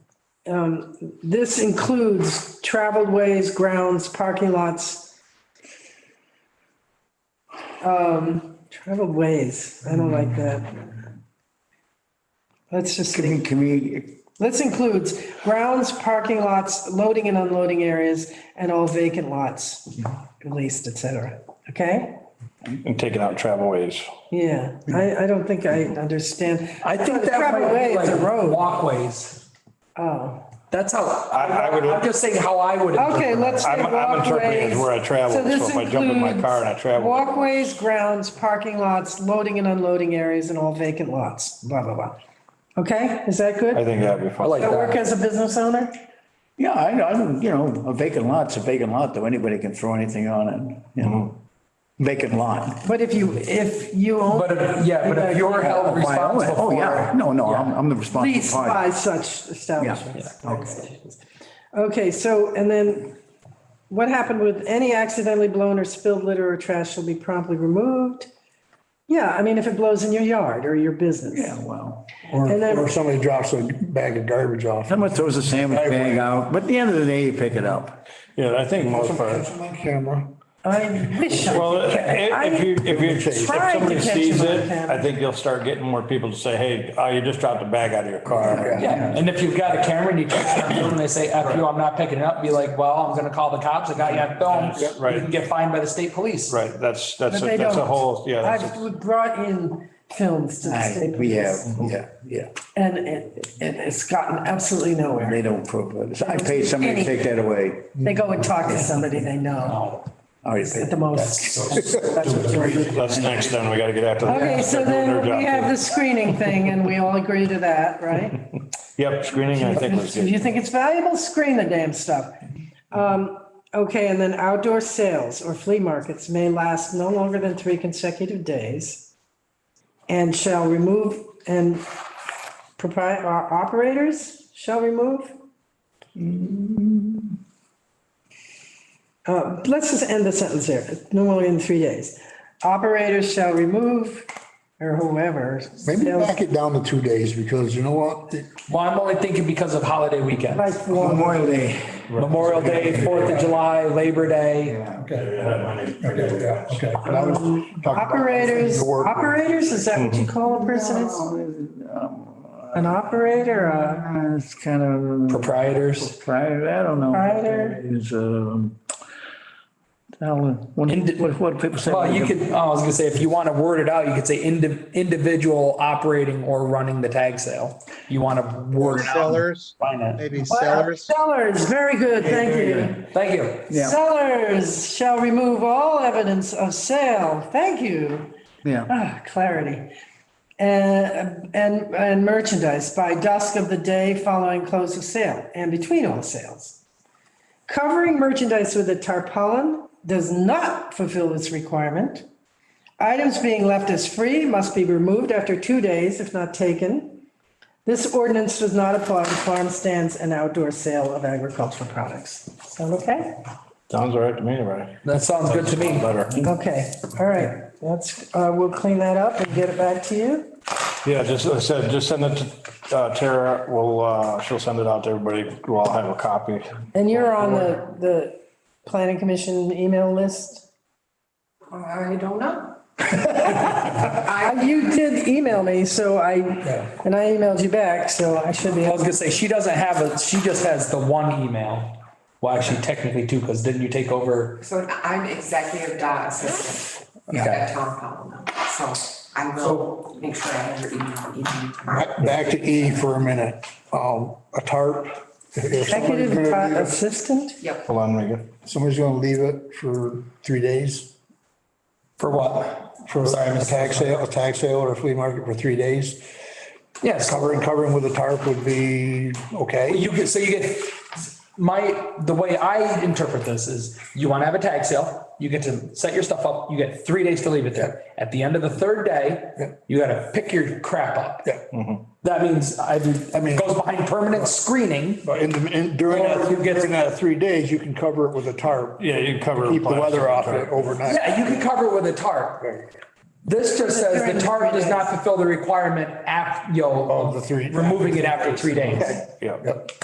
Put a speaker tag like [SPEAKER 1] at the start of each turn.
[SPEAKER 1] um, this includes traveled ways, grounds, parking lots. Um, traveled ways, I don't
[SPEAKER 2] Hmm.
[SPEAKER 1] like that. Let's just,
[SPEAKER 2] Can we, can we,
[SPEAKER 1] let's includes grounds, parking lots, loading and unloading areas, and all vacant lots, at least, et cetera, okay?
[SPEAKER 3] and taking out travel ways.
[SPEAKER 1] Yeah, I, I don't think I understand.
[SPEAKER 2] I think that
[SPEAKER 1] Travel
[SPEAKER 2] might
[SPEAKER 1] way
[SPEAKER 2] be
[SPEAKER 1] is a
[SPEAKER 2] like
[SPEAKER 1] road.
[SPEAKER 2] walkways.
[SPEAKER 1] Oh,
[SPEAKER 2] That's how,
[SPEAKER 3] I would-
[SPEAKER 2] I'm just saying how I would.
[SPEAKER 1] okay,
[SPEAKER 2] interpret it.
[SPEAKER 1] let's say
[SPEAKER 3] I'm, I'm interpreting it
[SPEAKER 1] walkways.
[SPEAKER 3] as where I travel,
[SPEAKER 1] So
[SPEAKER 3] so
[SPEAKER 1] this
[SPEAKER 3] if I jump in my
[SPEAKER 1] includes
[SPEAKER 3] car and I travel,
[SPEAKER 1] Walkways, grounds, parking lots, loading and unloading areas and all vacant lots, blah, blah, blah. Okay, is that
[SPEAKER 3] I
[SPEAKER 1] good?
[SPEAKER 3] think that'd be
[SPEAKER 2] I like
[SPEAKER 3] fun.
[SPEAKER 1] I work
[SPEAKER 2] that.
[SPEAKER 1] as a business owner?
[SPEAKER 4] Yeah, I, I don't, you know, a vacant lot's a vacant lot, though. Anybody can throw anything on it, you know? Vacant lot.
[SPEAKER 1] But if you, if you
[SPEAKER 2] But,
[SPEAKER 1] own,
[SPEAKER 2] if- yeah, but if you're held
[SPEAKER 4] By all-
[SPEAKER 2] responsible
[SPEAKER 4] Oh,
[SPEAKER 2] for
[SPEAKER 4] yeah.
[SPEAKER 2] it.
[SPEAKER 4] No, no, I'm, I'm the responsible
[SPEAKER 1] leased
[SPEAKER 4] party.
[SPEAKER 1] by such establishments.
[SPEAKER 4] Yeah, yeah,
[SPEAKER 1] Okay, so, and then what happened with any accidentally blown or spilled litter or trash shall be promptly removed? Yeah, I mean, if it blows in your yard or your business.
[SPEAKER 4] Yeah, well,
[SPEAKER 5] Or,
[SPEAKER 1] And then-
[SPEAKER 5] or somebody drops a bag of garbage off.
[SPEAKER 4] someone throws a sandwich
[SPEAKER 3] I agree.
[SPEAKER 4] bag out, but at the end of the day, you pick it up.
[SPEAKER 3] Yeah, I think most parts.
[SPEAKER 5] That's my camera.
[SPEAKER 1] I wish I
[SPEAKER 3] Well, i- if you, if you, if
[SPEAKER 1] tried to
[SPEAKER 3] somebody
[SPEAKER 1] catch
[SPEAKER 3] sees
[SPEAKER 1] him on
[SPEAKER 3] it,
[SPEAKER 1] camera.
[SPEAKER 3] I think you'll start getting more people to say, hey, oh, you just dropped a bag out of your car.
[SPEAKER 2] Yeah, and if you've got a camera and you catch them doing, it, they say, F you, I'm not picking it up, be like, well, I'm gonna call the cops, I got you on
[SPEAKER 3] Yes,
[SPEAKER 2] film.
[SPEAKER 3] right.
[SPEAKER 2] You can get fined by the state police.
[SPEAKER 3] Right, that's,
[SPEAKER 1] But
[SPEAKER 3] that's,
[SPEAKER 1] they
[SPEAKER 3] a- that's a
[SPEAKER 1] don't.
[SPEAKER 3] whole, yeah. that's a-
[SPEAKER 1] I've brought in films to the
[SPEAKER 4] I-
[SPEAKER 1] state.
[SPEAKER 4] We have,
[SPEAKER 1] police,
[SPEAKER 4] yeah, yeah.
[SPEAKER 1] And it, and it's gotten absolutely nowhere.
[SPEAKER 4] They don't prove it. I paid somebody to take that away.
[SPEAKER 1] They go and talk to somebody they
[SPEAKER 4] Oh,
[SPEAKER 1] know
[SPEAKER 4] I Already paid.
[SPEAKER 1] at the most. That's what they'll do.
[SPEAKER 3] That's next then, we gotta get after. that.
[SPEAKER 1] Okay, so
[SPEAKER 3] They're doing
[SPEAKER 1] then
[SPEAKER 3] their
[SPEAKER 1] we
[SPEAKER 3] job,
[SPEAKER 1] have the screening thing and we all agree to that, right?
[SPEAKER 3] too. Yep, screening, I think was
[SPEAKER 1] If you
[SPEAKER 3] good.
[SPEAKER 1] think it's valuable, screen the damn stuff. Um, Okay, and then outdoor sales or flea markets may last no longer than three consecutive days and shall remove, and propri- uh, operators shall remove? Uh, Let's just end the sentence there, no more than three days. Operators shall remove, or whoever.
[SPEAKER 5] Maybe
[SPEAKER 1] sales
[SPEAKER 5] back it down to two days because you know what? It-
[SPEAKER 2] Well, I'm only thinking because of holiday weekend,
[SPEAKER 1] by form.
[SPEAKER 4] Memorial Day.
[SPEAKER 2] Memorial Day, Fourth of July, Labor Day.
[SPEAKER 5] Okay, yeah, okay. But I was talking about-
[SPEAKER 1] Operators,
[SPEAKER 5] The work-
[SPEAKER 1] operators, is that what you call a person? It's- An operator, a
[SPEAKER 4] Uh, It's kind of.
[SPEAKER 2] Proprietors,
[SPEAKER 4] Prior, I don't know.
[SPEAKER 1] Prior.
[SPEAKER 4] Is, um, what, what- what people say.
[SPEAKER 2] well, you could, oh, I was gonna say, if you wanna word it out, you could say indi- individual operating or running the tag sale. You wanna word it out.
[SPEAKER 6] Sellers,
[SPEAKER 2] Find it.
[SPEAKER 6] maybe
[SPEAKER 1] Well,
[SPEAKER 6] sellers.
[SPEAKER 1] Sellers, very good, thank you.
[SPEAKER 2] Thank you.
[SPEAKER 4] Yeah.
[SPEAKER 1] Sellers shall remove all evidence of sale, thank you.
[SPEAKER 4] Yeah,
[SPEAKER 1] Ah, clarity. And, and, and merchandise by dusk of the day following close of sale and between all sales. Covering merchandise with a tarpaulin does not fulfill this requirement. Items being left as free must be removed after two days if not taken. This ordinance does not apply to farm stands and outdoor sale of agricultural products. Sound okay?
[SPEAKER 3] Sounds all right to me, right?
[SPEAKER 2] That sounds good to me.
[SPEAKER 3] Better.
[SPEAKER 1] Okay, all right, that's, uh, we'll clean that up and get it back to you.
[SPEAKER 3] Yeah, just, I said, just send it to uh, Tara, we'll, uh, she'll send it out to everybody, we'll all have a copy.
[SPEAKER 1] And you're on the, the planning commission email list?
[SPEAKER 7] I don't know.
[SPEAKER 1] Uh, You did email me, so I, and I emailed you back, so I should be,
[SPEAKER 2] I was gonna say, she doesn't have a, she just has the one email. Well, actually technically two, because didn't you take over?
[SPEAKER 7] So I'm executive dot assistant
[SPEAKER 2] Okay.
[SPEAKER 7] at Tom Powell now, so I will make sure I have your email, email tomorrow.
[SPEAKER 5] Back back to E for a minute. Um, a tarp. if- if somebody's
[SPEAKER 1] executive
[SPEAKER 5] gonna leave
[SPEAKER 1] uh,
[SPEAKER 5] it-
[SPEAKER 1] assistant?
[SPEAKER 7] Yep.
[SPEAKER 3] Hold on, Megan.
[SPEAKER 5] Somebody's gonna leave it for three days
[SPEAKER 2] For what?
[SPEAKER 5] for
[SPEAKER 2] Sorry,
[SPEAKER 5] a
[SPEAKER 2] Mr.
[SPEAKER 5] tax sale, a tax sale or a flea market for three days.
[SPEAKER 2] Yes,
[SPEAKER 5] Covering, covering with a tarp would be okay.
[SPEAKER 2] you get, so you get, my, the way I interpret this is you want to have a tag sale, you get to set your stuff up, you get three days to leave it there. At the end of the third
[SPEAKER 5] Yeah.
[SPEAKER 2] day, you gotta pick your crap up.
[SPEAKER 5] Yeah. Mm-hmm.
[SPEAKER 2] That means either, it goes behind permanent screening.
[SPEAKER 5] But in, the in, during that,
[SPEAKER 2] Or you get-
[SPEAKER 5] during that three days, you can cover it with a tarp.
[SPEAKER 3] Yeah, you can cover.
[SPEAKER 5] Keep the
[SPEAKER 3] plastic
[SPEAKER 5] weather off
[SPEAKER 3] tarp.
[SPEAKER 5] it overnight.
[SPEAKER 2] Yeah, you can cover it with a tarp. This just says the tarp does not fulfill the requirement af, you know,
[SPEAKER 5] Of the three-
[SPEAKER 2] Removing it after three days.
[SPEAKER 3] Yeah.